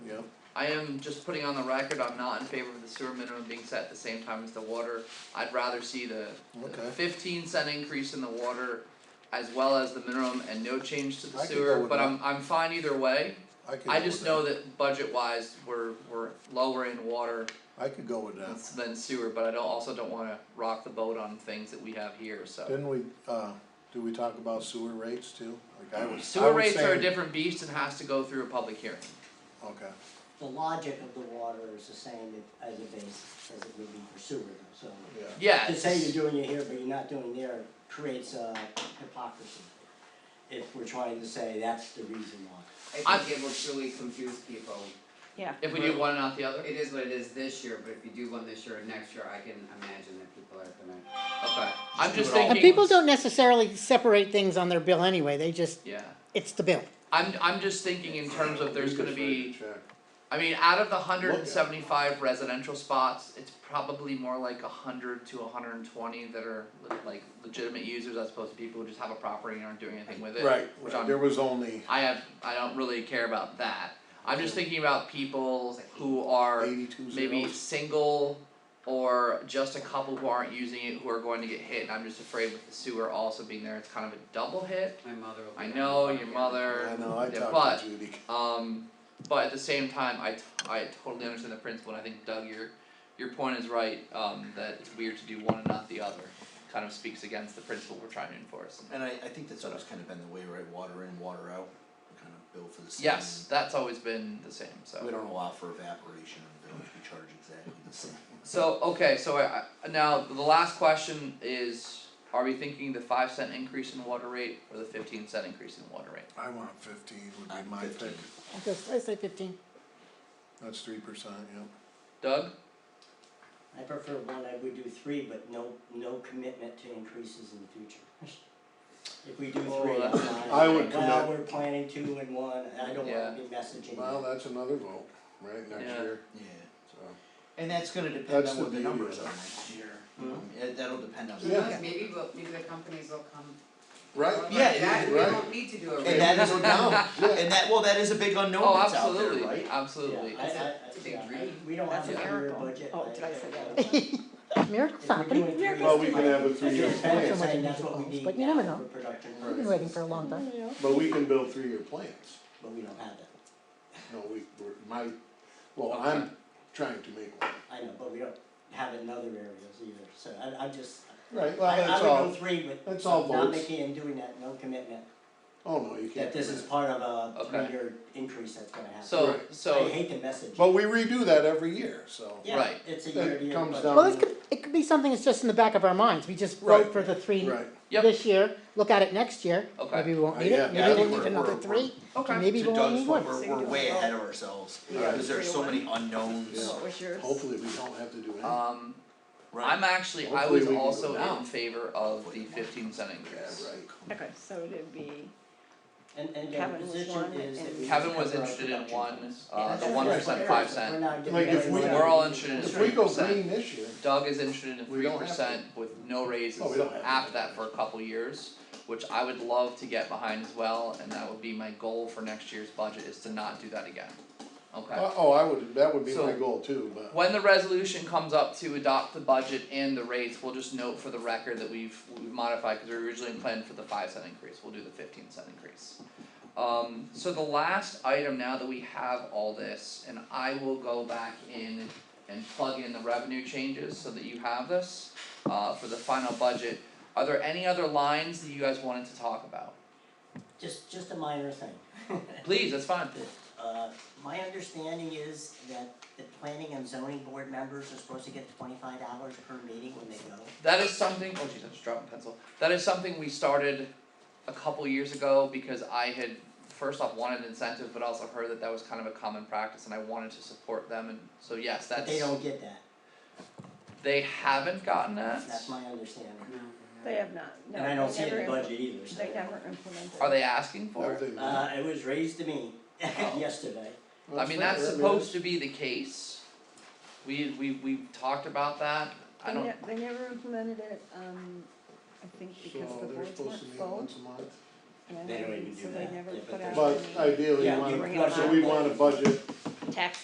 I am just putting on the record, I'm not in favor of the sewer minimum being set at the same time as the water. I'd rather see the the Okay. fifteen cent increase in the water as well as the minimum and no change to the I could go sewer, with but that. I'm I'm fine either way. I could. I go just with know that budget wise, we're we're lower in water I could go with than that. than sewer, but I don't also don't wanna rock the boat on things that we have here, so. Didn't we, uh, do we talk about sewer rates too? Like I was, I was Sewer rates are a saying- different beast and has to go through a public hearing. Okay, The logic of the water is the same as a base, as it would be for sewer, so. yeah. Yeah, To say it's- you're doing it here, but you're not doing there creates uh, hypocrisy. If we're trying to say that's the reason why. I I'm- think it will truly confuse people. Yeah. if we do one and not the other, It is what it is this year, but if you do one this year and next year, I can imagine that people are gonna. okay, I'm do just it all. thinking. And people don't necessarily separate things on their bill anyway, they just, Yeah, it's the bill. I'm I'm just thinking in terms of there's gonna be, Check. I mean, out of the hundred Look and at it. seventy five residential spots, it's probably more like a hundred to hundred and twenty that are le- like legitimate users as opposed to people who just have a property and aren't doing anything with it. Right, Which right, I'm- there was only I have, I don't really care about that. I'm just thinking about people who are eighty-two zeros. maybe single or just a couple who aren't using it who are going to get hit. And I'm just afraid with the sewer also being there, it's kind of a double hit. My mother will. be I like, know "Oh, your yeah." mother. I know, I yeah, talked to Judy. But um, but at the same time, I, t- I totally understand the principle. And I think Doug, your your point is right. Um, that it's weird to do one and not the other. Kind of speaks against the principle we're trying to enforce. And I, I think that's always kind of been the way, right, water in, water out, we kind of bill for the same. Yes, that's always been the same. So. We don't allow for evaporation in the village, we charge exactly the same. So, okay, so I, I- now the last question is, are we thinking the five cent increase in water rate or the fifteen cent increase in water rate? I want fifteen would I'm be my pick, 15. I just, I say fifteen. that's three percent, yeah. Doug? I prefer one, I would do three, but no, no commitment to increases in the future. If we do Oh, three, I'm that's- not, I would well, commit. we're planning two and one, and I don't Yeah. wanna be messaging. Well, that's another vote, right, next Yeah. year, Yeah, so. and that's gonna depend That's on the what the beauty of numbers it. are next year, Hmm. Um, yeah, that'll depend on. Who Yeah. knows, maybe we'll, maybe the companies will come. Right, Like yeah, That, we right. don't need to do a. And that is unknown, Yeah. and that, well, that is a big unknown Oh, that's out there, right? absolutely, absolutely. Yeah, I, I, I, It's a big yeah, I, dream. we don't have That's a a clear miracle. budget. Oh, did I say that? Miracles If we're happening, doing three. Well, we can have a three-year It's plan. better saying that's what we But need you never now know. for production We've I've been purposes, waiting for a long time. But we can build three-year plans, But we don't have that, no, we, we're, my, well, I'm trying to make one. I know, but we don't have it in other areas either, so I, I'm just, Right, I, well, I that's would go all, three, but that's all not votes, making and doing that, no commitment, oh no, you can't. that this do is that. part of a Okay. three-year increase that's gonna happen. So, Right. I so, hate the message. But we redo that every year, so. Yeah, Right. it's a That year to year comes budget. down- Well, this could, it could be something that's just in the back of our minds, we just vote Right. for the three Right, yep, this year, look at it next year, Okay. maybe we won't Uh, need yeah. it, Yeah, I maybe we'll think need we're- another we're- three, okay. and maybe To we'll only Doug's need point, one. we're, So you we're do way it all. ahead of ourselves, Yeah. cause there's so many unknowns, What was yours? hopefully we don't have to do anything. Um, I'm right? actually, I Hopefully was we can go also in down. favor of the fifteen cent increase. Okay, so it'd be, And and their Kevin was position one, is that and- we. Kevin just was cover our interested in production one, costs. uh, the Yeah, one that's percent, Fair, five so cent. We're not getting Like, if very we- much We're all out of interested in it. If we go 3%. green this year, Doug is interested in We three don't have percent with no raises Oh, we don't have to. after that for a couple years, which I would love to get behind as well, and that would be my goal for next year's budget is to not do that again. Okay, Uh, oh, I would, that would be my So- goal too, but, when the resolution comes up to adopt the budget and the rates, we'll just note for the record that we've we've modified, cause we originally planned for the five cent increase, we'll do the fifteen cent increase. Um, so the last item now that we have all this, and I will go back in and plug in the revenue changes so that you have this uh for the final budget. Are there any other lines that you guys wanted to talk about? Just just a minor thing. Please, that's fine. Uh, my understanding is that the planning and zoning board members are supposed to get twenty-five dollars per meeting when they go. That is something, oh jeez, I just dropped my pencil. That is something we started a couple years ago because I had first off wanted incentives, but also heard that that was kind of a common practice and I wanted to support them and so yes, But that's they don't get that, they haven't gotten that. that's my understanding. they have not, no, And I don't see they it in never, the impl- budget either, so. they never implemented. Are they asking for it? everything. Uh, it was raised to me yesterday. I mean, that's supposed to be the case. We we we talked about that, I They don't, ne- they never implemented it, um, I think because the boards So they're supposed to weren't meet full, once a month, and They don't even so do they that. never Yeah, but put there's- out but any ideally, Yeah, you you wanna- bring it so we up. want a budget tax